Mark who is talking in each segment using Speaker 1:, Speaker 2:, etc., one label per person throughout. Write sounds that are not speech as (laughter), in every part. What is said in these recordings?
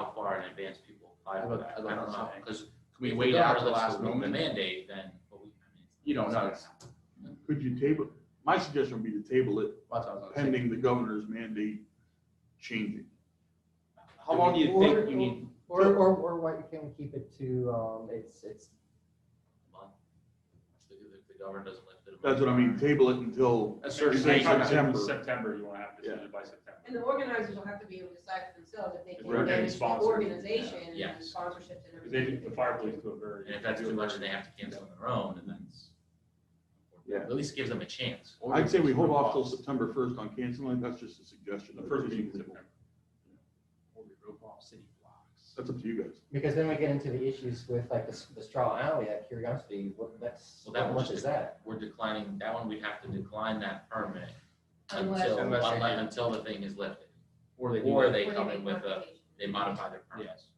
Speaker 1: and advance people apply
Speaker 2: I'd
Speaker 1: for
Speaker 2: love-
Speaker 1: that.
Speaker 2: I'd
Speaker 1: I
Speaker 2: love
Speaker 1: don't
Speaker 2: to
Speaker 1: know,
Speaker 2: say.
Speaker 1: because
Speaker 2: Could we
Speaker 1: if
Speaker 2: wait
Speaker 1: go
Speaker 2: out
Speaker 1: out
Speaker 2: to the
Speaker 1: this
Speaker 2: last
Speaker 1: with The
Speaker 2: moment?
Speaker 1: mandate, then, but we, I mean,
Speaker 2: You don't know. That's
Speaker 3: Could you table, my suggestion would be to table it
Speaker 2: what I was gonna say.
Speaker 3: pending the governor's mandate changing.
Speaker 2: How long do you think you need?
Speaker 4: Or, or, or why can we keep it to, um, it's, it's,
Speaker 1: a month. If the- if the governor doesn't lift it. a
Speaker 3: That's what I
Speaker 1: month.
Speaker 3: mean, table it until,
Speaker 2: A certain
Speaker 3: Say
Speaker 2: date.
Speaker 3: September.
Speaker 5: September, you want to have
Speaker 3: Yeah.
Speaker 5: decision by September.
Speaker 6: And the organizers will have to be able to decide for themselves if they
Speaker 5: Right.
Speaker 6: can manage the
Speaker 5: Sponsors.
Speaker 6: organization and
Speaker 1: Yeah.
Speaker 6: sponsorships and
Speaker 5: Because they
Speaker 6: everything.
Speaker 5: did the fire police to a very.
Speaker 1: And if that's too much, then they have to cancel on their own, and that's.
Speaker 3: Yeah.
Speaker 1: At least gives them a chance.
Speaker 3: I'd say we hold off till September first on canceling, that's just a suggestion.
Speaker 5: The first meeting in September.
Speaker 3: That's up to you guys.
Speaker 4: because then we get into the issues with like the, s- the straw alley at Curiosity, what, that's,
Speaker 1: Well, that
Speaker 4: how
Speaker 1: would
Speaker 4: much
Speaker 1: just-
Speaker 4: is that?
Speaker 1: We're declining, that one, we'd have to decline that permit
Speaker 6: Unless-
Speaker 1: until,
Speaker 2: Unless they
Speaker 1: unle-
Speaker 2: do.
Speaker 1: until the thing is lifted.
Speaker 2: Or they do
Speaker 1: Or
Speaker 2: it.
Speaker 1: they
Speaker 6: Or
Speaker 1: come
Speaker 6: make
Speaker 1: in with a,
Speaker 6: modifications.
Speaker 1: they modify their permits.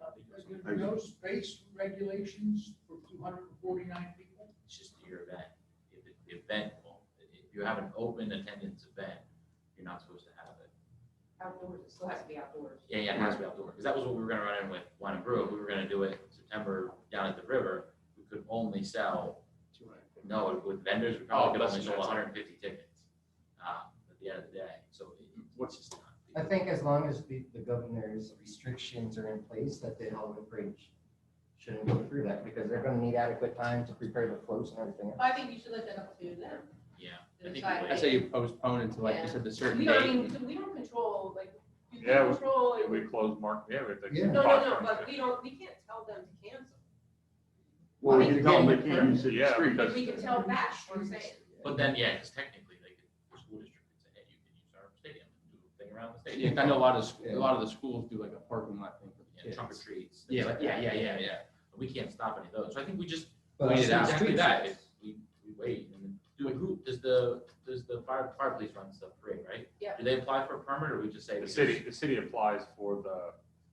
Speaker 7: But there are no space regulations for two hundred and forty-nine people?
Speaker 1: It's just your event. If it- the event, won't- if you have an open attendance event, you're not supposed to have it.
Speaker 6: Outdoors, it still has to be outdoors.
Speaker 1: Yeah, yeah, it has to be outdoor, because that was what we were gonna run in with wine and brew. We were gonna do it September down at the river. We could only sell, no, with vendors, we
Speaker 2: Oh,
Speaker 1: probably could
Speaker 2: that's
Speaker 1: only sell
Speaker 2: what I said.
Speaker 1: hundred and fifty tickets. uh, At the end of the day, so it- it's just not.
Speaker 4: I think as long as the, the governor's restrictions are in place, that the Hellman Bridge shouldn't go through that, because they're gonna need adequate time to prepare the floats and everything. else.
Speaker 6: I think you should let that up to them.
Speaker 1: Yeah. I
Speaker 6: to
Speaker 1: think we
Speaker 6: decide.
Speaker 1: wait.
Speaker 2: I say you postpone until like you said the certain
Speaker 6: We don't, I
Speaker 2: date.
Speaker 6: mean, we don't control, like, we
Speaker 5: Yeah, we-
Speaker 6: control,
Speaker 5: We close Mark, yeah, we have to.
Speaker 4: Yeah.
Speaker 6: no, no, no, but we don't, we can't tell them to cancel.
Speaker 3: Well, we
Speaker 4: I mean,
Speaker 3: can tell them they
Speaker 4: again,
Speaker 3: can't use it
Speaker 5: Yeah,
Speaker 3: as street.
Speaker 5: because-
Speaker 6: We can tell that, we're saying.
Speaker 1: But then, yeah, because technically, they could, the school district could say, hey, you can use our stadium, do a thing around the
Speaker 2: Yeah, (laughs)
Speaker 1: stadium.
Speaker 2: I know a lot of, sc- a lot of the schools do like a parking lot thing. for the
Speaker 1: Yeah,
Speaker 2: kids.
Speaker 1: trunk or treats. things
Speaker 2: Yeah,
Speaker 1: like
Speaker 2: like-
Speaker 1: that.
Speaker 2: yeah, yeah, yeah, yeah.
Speaker 1: But we can't stop any of those, so I think we just
Speaker 4: But
Speaker 2: Wait it
Speaker 4: it's
Speaker 2: out.
Speaker 1: Exactly
Speaker 4: streets.
Speaker 1: that, if we, we wait and then do a group, does the, does the fire, fire police run stuff free, right?
Speaker 6: Yeah.
Speaker 1: Do they apply for a permit or we just say?
Speaker 5: The
Speaker 1: we
Speaker 5: city,
Speaker 1: just-
Speaker 5: the city applies for the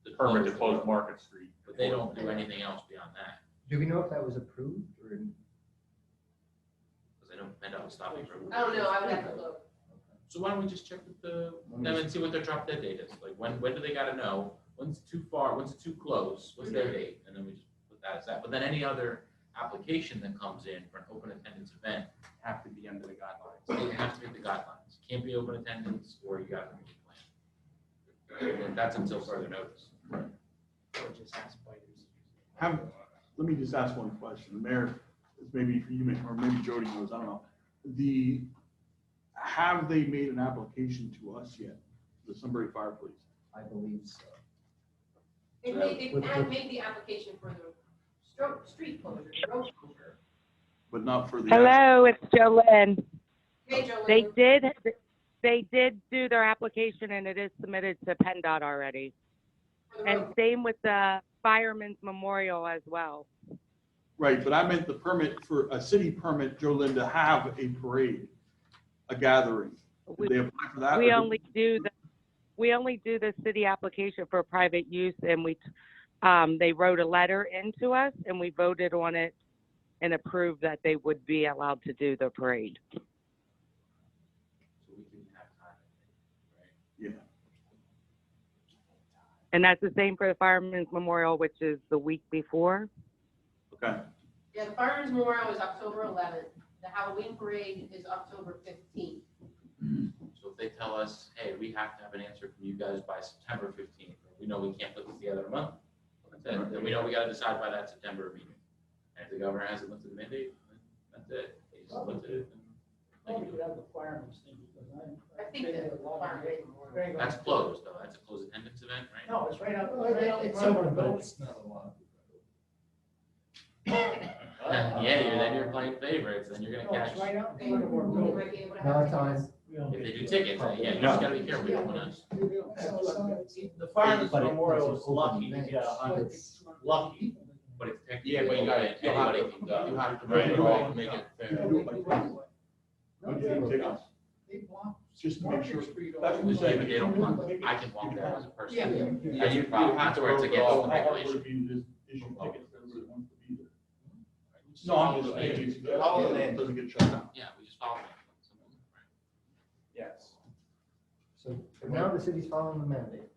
Speaker 1: the
Speaker 5: permit to
Speaker 1: the
Speaker 5: close
Speaker 1: road,
Speaker 5: Market Street.
Speaker 1: But they don't do anything else beyond that,
Speaker 4: Do we know if that was approved or?
Speaker 1: because they don't end up stopping for.
Speaker 6: I don't know, I would have to look.
Speaker 1: So why don't we just check with the,
Speaker 2: Let me
Speaker 1: them and see what their drop dead date is, like when, when do they gotta know? When's too far, when's it too close, what's their date, and then we just put that as that, but then any other application that comes in for an open attendance event,
Speaker 2: Have to be under the guidelines.
Speaker 1: it has to meet the guidelines, can't be open attendance or you gotta make a plan. And that's until further notice.
Speaker 3: Have, let me just ask one question. The Mayor, this maybe for you, may- or maybe Jody knows, I don't know. The, have they made an application to us yet, the Sunbury Fire Police?
Speaker 4: I believe so.
Speaker 6: They made, they had made the application for the stroke, street closure, road closure.
Speaker 3: But not for the.
Speaker 8: Hello, it's Jolynn.
Speaker 6: Hey, Joe.
Speaker 8: They did, they did do their application and it is submitted to PennDOT already.
Speaker 6: For the
Speaker 8: And
Speaker 6: road.
Speaker 8: same with the Fireman's Memorial as well.
Speaker 3: Right, but I meant the permit for, a city permit, Jolynn, to have a parade, a gathering. Did they
Speaker 8: We,
Speaker 3: apply for that? or
Speaker 8: we
Speaker 3: did-
Speaker 8: only do the, we only do the city application for private use and we, um, they wrote a letter into us and we voted on it and approved that they would be allowed to do the parade.
Speaker 1: So we can have time, right?
Speaker 3: Yeah.
Speaker 8: And that's the same for the Fireman's Memorial, which is the week before.
Speaker 3: Okay,
Speaker 6: Yeah, the Fireman's Memorial is October eleventh, the Halloween parade is October fifteenth.
Speaker 1: So if they tell us, hey, we have to have an answer from you guys by September fifteenth, we know we can't put this together in a month, then, then we know we gotta decide by that September meeting. And if the governor hasn't lifted the mandate, then that's it, they just lifted it. and they
Speaker 7: Probably
Speaker 1: can do
Speaker 7: could have the firemen's thing, because I.
Speaker 6: I think that the firemen-
Speaker 1: it. That's closed, though, that's a closed attendance event, right?
Speaker 7: No, it's right out, right out.
Speaker 4: It's
Speaker 7: front of
Speaker 4: over,
Speaker 7: the
Speaker 4: but
Speaker 7: building.
Speaker 4: it's not a lot.
Speaker 1: Yeah, you're, then you're playing favorites, then you're gonna
Speaker 7: No, it's
Speaker 1: catch,
Speaker 7: right out
Speaker 6: They
Speaker 7: in front of our
Speaker 6: we
Speaker 7: building.
Speaker 6: might be able to
Speaker 4: No,
Speaker 6: have
Speaker 4: it's on.
Speaker 1: if they do tickets, then yeah, you just gotta be careful, you don't wanna.
Speaker 7: The firemen's
Speaker 4: Fireman's Memorial
Speaker 7: memorial
Speaker 4: is
Speaker 7: is
Speaker 4: lucky
Speaker 7: lucky to
Speaker 4: to get
Speaker 7: get
Speaker 4: a hundred-
Speaker 7: lucky.
Speaker 1: But it's technically.
Speaker 2: Yeah, but you gotta, you have
Speaker 1: Anybody
Speaker 2: to,
Speaker 1: can go.
Speaker 2: you have to.
Speaker 3: Right.
Speaker 2: make it all- make it fair.
Speaker 3: Would you take tickets? Just to make sure. That's what we're saying.
Speaker 1: They don't want- I can walk down as a person.
Speaker 2: Yeah, you, you
Speaker 1: That's
Speaker 2: have to.
Speaker 1: where it's
Speaker 2: rope it
Speaker 1: against
Speaker 2: all.
Speaker 1: the regulation.
Speaker 3: No, I'm just saying. Doesn't get shut down.
Speaker 1: Yeah, we just follow them.
Speaker 2: Yes.
Speaker 4: So now the city's following the mandate.